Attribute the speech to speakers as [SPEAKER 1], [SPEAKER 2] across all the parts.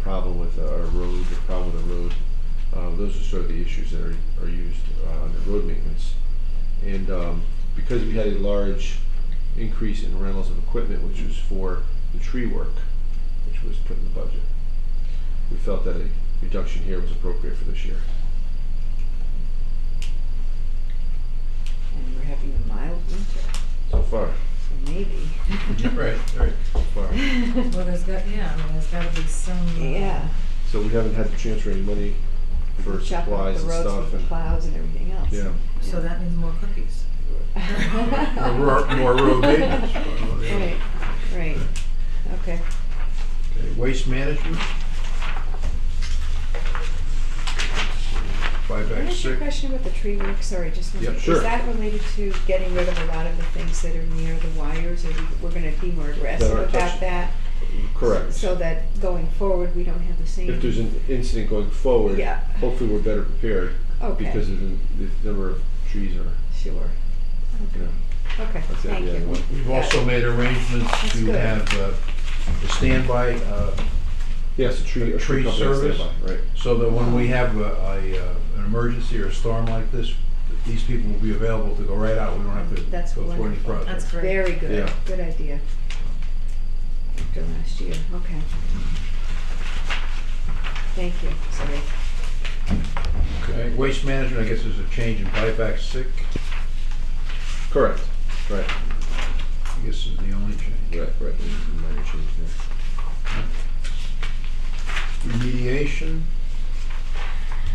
[SPEAKER 1] problem with a road, a problem with a road. Uh, those are sort of the issues that are, are used uh, under road maintenance. And um, because we had a large increase in rentals of equipment, which was for the tree work, which was put in the budget, we felt that a reduction here was appropriate for this year.
[SPEAKER 2] And we're having a mild winter,
[SPEAKER 1] So far,
[SPEAKER 2] so maybe.
[SPEAKER 1] Right, right. So far.
[SPEAKER 3] Well, there's got, yeah, I mean, there's gotta be some. uh,
[SPEAKER 2] Yeah.
[SPEAKER 1] So we haven't had to transfer any money for
[SPEAKER 2] Chop up
[SPEAKER 1] supplies and
[SPEAKER 2] The roads
[SPEAKER 1] stuff
[SPEAKER 2] with
[SPEAKER 1] and,
[SPEAKER 2] plows and everything else.
[SPEAKER 1] yeah.
[SPEAKER 3] So that means more cookies.
[SPEAKER 4] More ro- more road maintenance, more road
[SPEAKER 2] Right,
[SPEAKER 4] maintenance.
[SPEAKER 2] right, okay.
[SPEAKER 4] Okay, waste management. Five
[SPEAKER 2] Can I ask
[SPEAKER 4] X
[SPEAKER 2] you a
[SPEAKER 4] six.
[SPEAKER 2] question about the tree work, sorry, just one
[SPEAKER 4] Yep,
[SPEAKER 2] second.
[SPEAKER 1] sure.
[SPEAKER 2] Is that related to getting rid of a lot of the things that are near the wires, or we- we're gonna be more aggressive
[SPEAKER 1] aren't
[SPEAKER 2] about
[SPEAKER 1] touched.
[SPEAKER 2] that?
[SPEAKER 1] Correct.
[SPEAKER 2] So that going forward, we don't have the same.
[SPEAKER 1] If there's an incident going forward,
[SPEAKER 2] Yeah.
[SPEAKER 1] hopefully we're better prepared
[SPEAKER 2] Okay,
[SPEAKER 1] because of the, the number of trees are,
[SPEAKER 2] sure,
[SPEAKER 1] you know,
[SPEAKER 2] okay,
[SPEAKER 1] that's the
[SPEAKER 2] thank
[SPEAKER 1] idea.
[SPEAKER 2] you.
[SPEAKER 4] We've also made arrangements
[SPEAKER 2] That's
[SPEAKER 4] to
[SPEAKER 2] good.
[SPEAKER 4] have uh, a standby, uh,
[SPEAKER 1] Yes, a tree, a tree
[SPEAKER 4] Tree
[SPEAKER 1] company on
[SPEAKER 4] service.
[SPEAKER 1] standby, right.
[SPEAKER 4] so that when we have a, a, uh, an emergency or a storm like this, that these people will be available to go right out. We don't have to
[SPEAKER 2] That's
[SPEAKER 4] go through any
[SPEAKER 2] wonderful.
[SPEAKER 4] process.
[SPEAKER 3] That's great.
[SPEAKER 2] Very good,
[SPEAKER 1] Yeah.
[SPEAKER 2] good idea. After last year, okay. Thank you, sorry.
[SPEAKER 4] Okay, waste management, I guess there's a change in buyback sick,
[SPEAKER 1] Correct, right,
[SPEAKER 4] I guess is the only change.
[SPEAKER 1] right, right. Minor change there.
[SPEAKER 4] Remediation,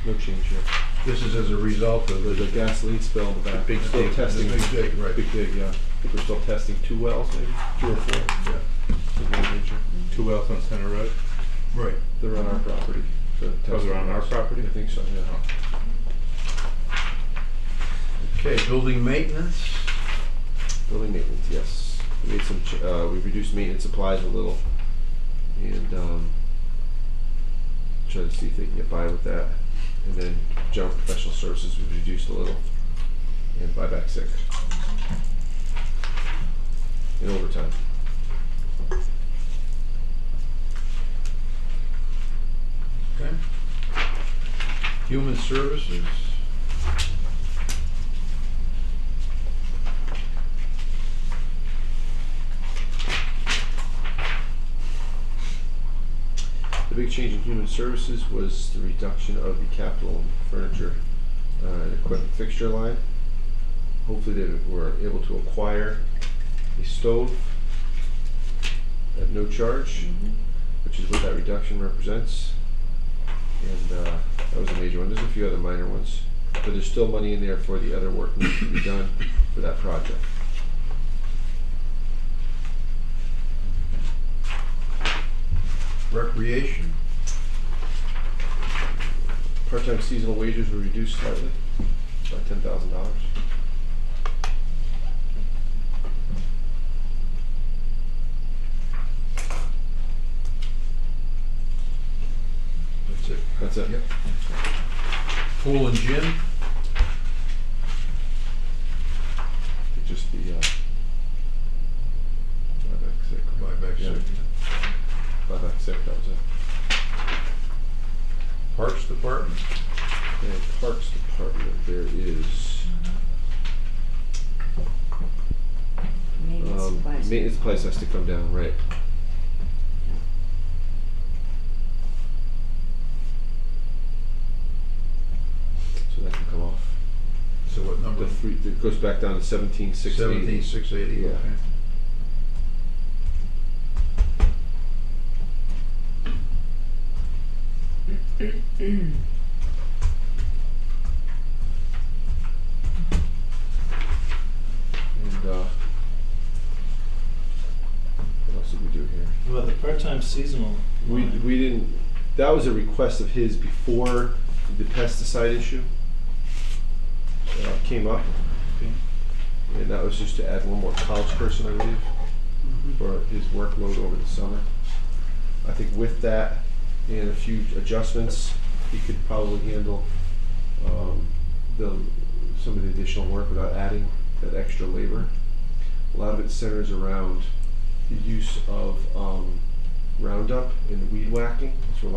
[SPEAKER 1] No change here.
[SPEAKER 4] this is as a result of
[SPEAKER 1] There's a
[SPEAKER 4] the.
[SPEAKER 1] gasoline spill in the back.
[SPEAKER 4] Big
[SPEAKER 1] We're
[SPEAKER 4] dig,
[SPEAKER 1] Still
[SPEAKER 4] the
[SPEAKER 1] testing.
[SPEAKER 4] big dig, right.
[SPEAKER 1] Big dig, yeah. I think we're still testing two wells, maybe, two or four.
[SPEAKER 4] Yeah.
[SPEAKER 1] Something of that nature.
[SPEAKER 5] Two wells on Center Road.
[SPEAKER 4] Right.
[SPEAKER 1] They're on our property. so
[SPEAKER 5] Oh, they're on our
[SPEAKER 1] testing.
[SPEAKER 5] property?
[SPEAKER 1] I think so, yeah.
[SPEAKER 4] Okay, building maintenance,
[SPEAKER 1] Building maintenance, yes. We made some, ch- uh, we reduced maintenance supplies a little and, um, try to see if they can get by with that. And then general professional services, we reduced a little and buyback sick. And overtime.
[SPEAKER 4] okay? Human services,
[SPEAKER 1] The big change in human services was the reduction of the capital furniture uh, and equipment fixture line. Hopefully they were able to acquire a stove at no charge, which is what that reduction represents. And uh, that was a major one. There's a few other minor ones, but there's still money in there for the other work needs to be done for that project.
[SPEAKER 4] recreation,
[SPEAKER 1] Part-time seasonal wages were reduced slightly by ten thousand dollars.
[SPEAKER 4] that's it.
[SPEAKER 1] That's it.
[SPEAKER 4] Yep. Pool and gym,
[SPEAKER 1] Just the, uh, buyback sick.
[SPEAKER 4] buyback
[SPEAKER 1] Yeah.
[SPEAKER 4] sick,
[SPEAKER 1] Buyback sick, that was it.
[SPEAKER 4] parks department,
[SPEAKER 1] And Parks Department, there is,
[SPEAKER 2] Maintenance
[SPEAKER 1] um,
[SPEAKER 2] supplies.
[SPEAKER 1] maintenance place has to come down, right? So that can come off.
[SPEAKER 4] so what number?
[SPEAKER 1] The three, it goes back down to seventeen six eighty.
[SPEAKER 4] Seventeen, six eighty,
[SPEAKER 1] Yeah.
[SPEAKER 4] okay.
[SPEAKER 1] And, uh, what else did we do here?
[SPEAKER 6] Well, the part-time seasonal.
[SPEAKER 1] We,
[SPEAKER 6] line.
[SPEAKER 1] we didn't, that was a request of his before the pesticide issue uh, came up.
[SPEAKER 6] Okay.
[SPEAKER 1] And that was just to add one more college person, I believe, for his workload over the summer. I think with that and a few adjustments, he could probably handle um, the, some of the additional work without adding that extra labor. A lot of it centers around the use of um, Roundup and weed whacking. That's where a lot